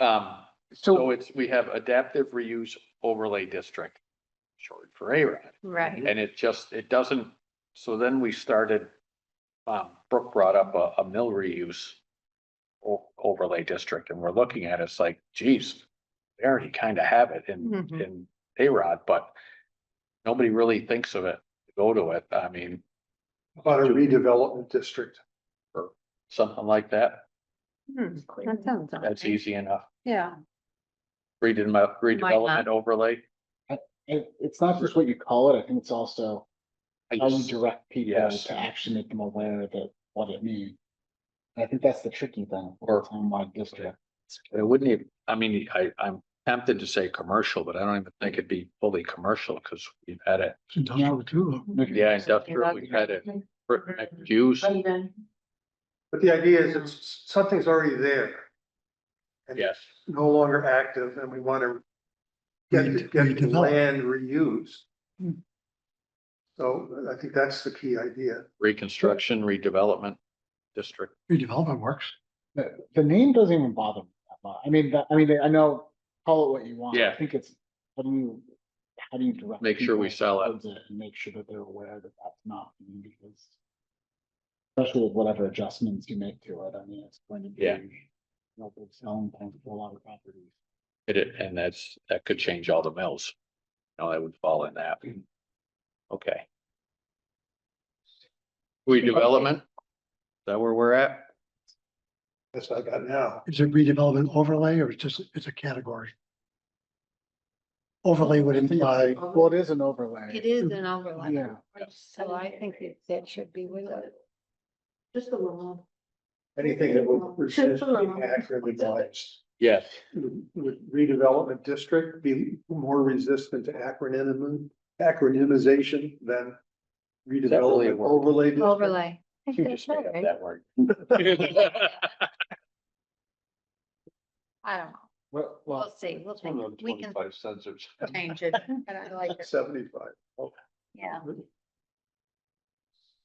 Um, so it's, we have adaptive reuse overlay district, short for ARAD. Right. And it just, it doesn't, so then we started, um, Brooke brought up a, a mill reuse o- overlay district and we're looking at it, it's like, geez, they already kind of have it in, Mhm. in A-Rod, but nobody really thinks of it, to go to it. I mean, About a redevelopment district. something like that, Hmm, That sounds. all that's right. easy enough. Yeah. Redem- not. redevelopment overlay. It, it's not just what you call it, I think it's also I how you just- direct people Yes. to actually make them aware of it, what it means. And I think that's the tricky thing, Or- or townwide district. It wouldn't even, I mean, I, I'm tempted to say commercial, but I don't even think it'd be fully commercial because we've had it. Industrial too. Yeah, industrial, we've had it. for Mm-hmm. mixed Use, But the idea is it's, something's already there, yes, no longer active, and we want to get, get the land reused. So I think that's the key idea. reconstruction, redevelopment district. Redevelopment works. The, the name doesn't even bother me that much. I mean, that, I mean, I know, call it what you want. Yeah. I think it's, how do you, how do you direct? Make sure we people sell it. towards And make sure that they're aware that that's not, me, because. Especially with whatever adjustments you make to it, I mean, it's going to be. Yeah. you know, big selling point for a lot of properties. It, it- and that's, that could change all the mills. No, that would fall in that. Okay. Redevelopment? Is that where we're at? That's what I got now. Is it redevelopment overlay or it's just, it's a category? Overlay would imply, Well, it is an overlay. It is an overlay, Yeah. so I think that that should be with it. Just a little. Anything that will resist being accurately biased. Yes. Would redevelopment district be more resistant to acronym, acronymization than really a redevelopment word? overlay? district? Overlay. I You think just that's made up right. that word. I don't know. Well, We'll well, see. We'll think. We can cents or change it, but I like it. Seventy-five. Yeah.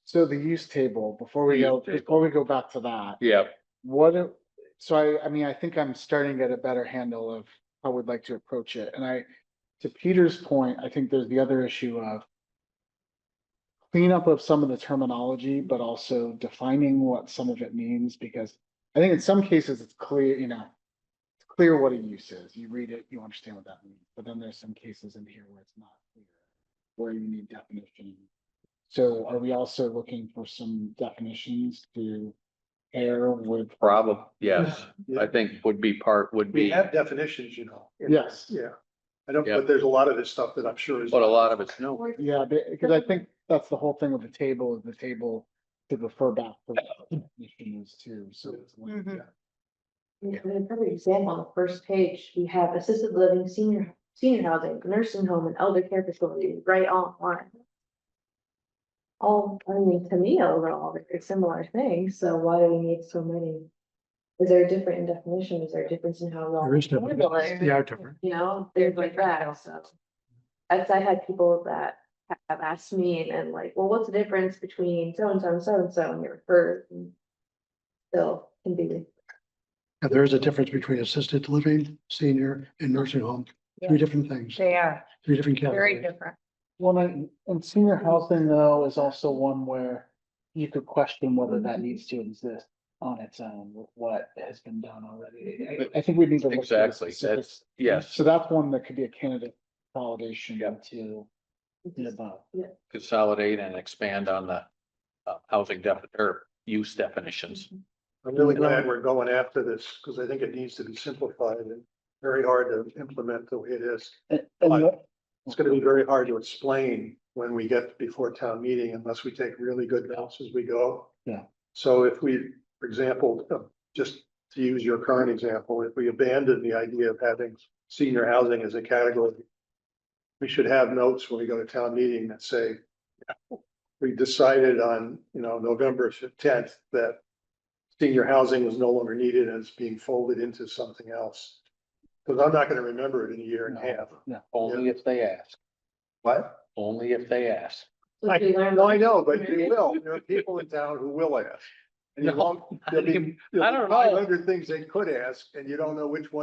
so the use table, before we The go, use table. before we go back to that. Yeah, What, it- so I, I mean, I think I'm starting to get a better handle of how we'd like to approach it, and I, to Peter's point, I think there's the other issue of cleanup of some of the terminology, but also defining what some of it means, because I think in some cases it's clear, you know, it's clear what a use is, you read it, you understand what that means, but then there's some cases in here where it's not clear, where you need definition. So are we also looking for some definitions to pair with problem, yes. I think would be part, would We be, have definitions, you know. in- Yes. Yeah. I don't, Yeah. but there's a lot of this stuff that I'm sure is. but a lot of it's new. Yeah, because I think that's the whole thing with the table, is the table to refer back to the definitions too, so. it's like- Mhm. Yeah, and another example on the first page, we have assisted living, senior, senior housing, nursing home and elder care facility, right on line. All, I mean, to me, overall, they're similar things, so why do we need so many? Is there a different in definition? Is there a difference in how? we all there is handle different, it? they are different. you know, things like that also. As I had people that ha- have asked me and then like, well, what's the difference between so and so and so and so and your first? Still can be, And there is a difference between assisted living, senior and nursing home, three different things, They are three different very categories. different. Well, and and senior housing though is also one where you could question whether that needs to exist on its own with what has been done already. I- I think we need to. look at the Exactly, specifics. that's, yes, So that's one that could be a candidate consolidation Yeah. to the above. consolidate and expand on the uh, housing def, or use definitions. I'm really glad we're going after this because I think it needs to be simplified and very hard to implement the way it is. And- and Like- the- It's going to be very hard to explain when we get before town meeting unless we take really good notes as we go. Yeah. So if we, for example, uh, just to use your current example, if we abandon the idea of having senior housing as a category, we should have notes when we go to town meeting that say, we decided on, you know, November tenth that senior housing was no longer needed and it's being folded into something else. Because I'm not going to remember it in a year and a No. half. Only if they ask, What? only if they ask. so I- we learn. No, I know, but you will. There are people in town who will ask. And you No, won't, there'll be, I don't know. there'll be five hundred things they could ask and you don't know which one.